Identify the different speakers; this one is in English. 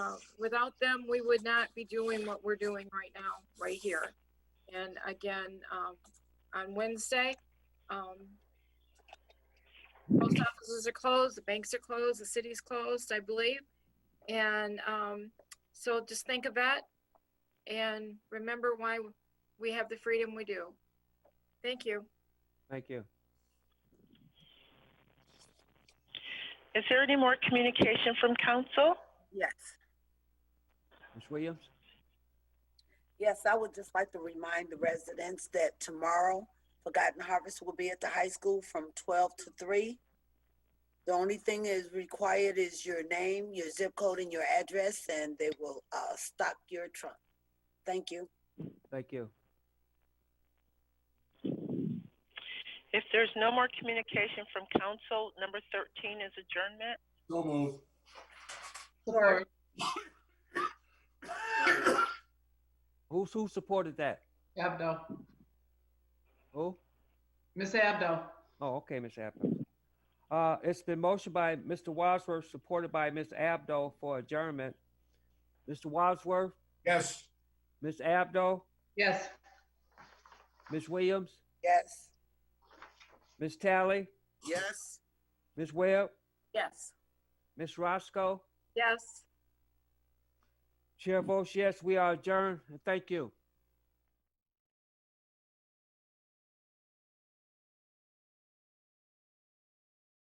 Speaker 1: of. Uh, Without them, we would not be doing what we're doing right now, right here. And again, um, on Wednesday, um, post offices are closed, the banks are closed, the city's closed, I believe. And, um, so just think of that and remember why we have the freedom we do. Thank you.
Speaker 2: Thank you.
Speaker 3: Is there any more communication from council?
Speaker 4: Yes,
Speaker 2: Ms. Williams?
Speaker 4: yes, I would just like to remind the residents that tomorrow Forgotten Harvest will be at the high school from twelve to three. The only thing is required is your name, your zip code and your address, and they will, uh, stock your trunk. Thank you.
Speaker 2: Thank you.
Speaker 3: If there's no more communication from council, number 13 is adjournment.
Speaker 5: So moved.
Speaker 6: Support.
Speaker 2: Who's, who supported that?
Speaker 6: Abdo.
Speaker 2: Who?
Speaker 6: Ms. Abdo.
Speaker 2: Oh, okay, Ms. Abdo. Uh, it's been motioned by Mr. Wadsworth, supported by Ms. Abdo for adjournment. Mr. Wadsworth,
Speaker 5: Yes.
Speaker 2: Ms. Abdo,
Speaker 6: Yes.
Speaker 2: Ms. Williams,
Speaker 4: Yes.
Speaker 2: Ms. Tally,
Speaker 4: Yes.
Speaker 2: Ms. Webb,
Speaker 4: Yes.
Speaker 2: Ms. Roscoe.
Speaker 1: Yes.
Speaker 2: Chair votes yes, we are adjourned. Thank you.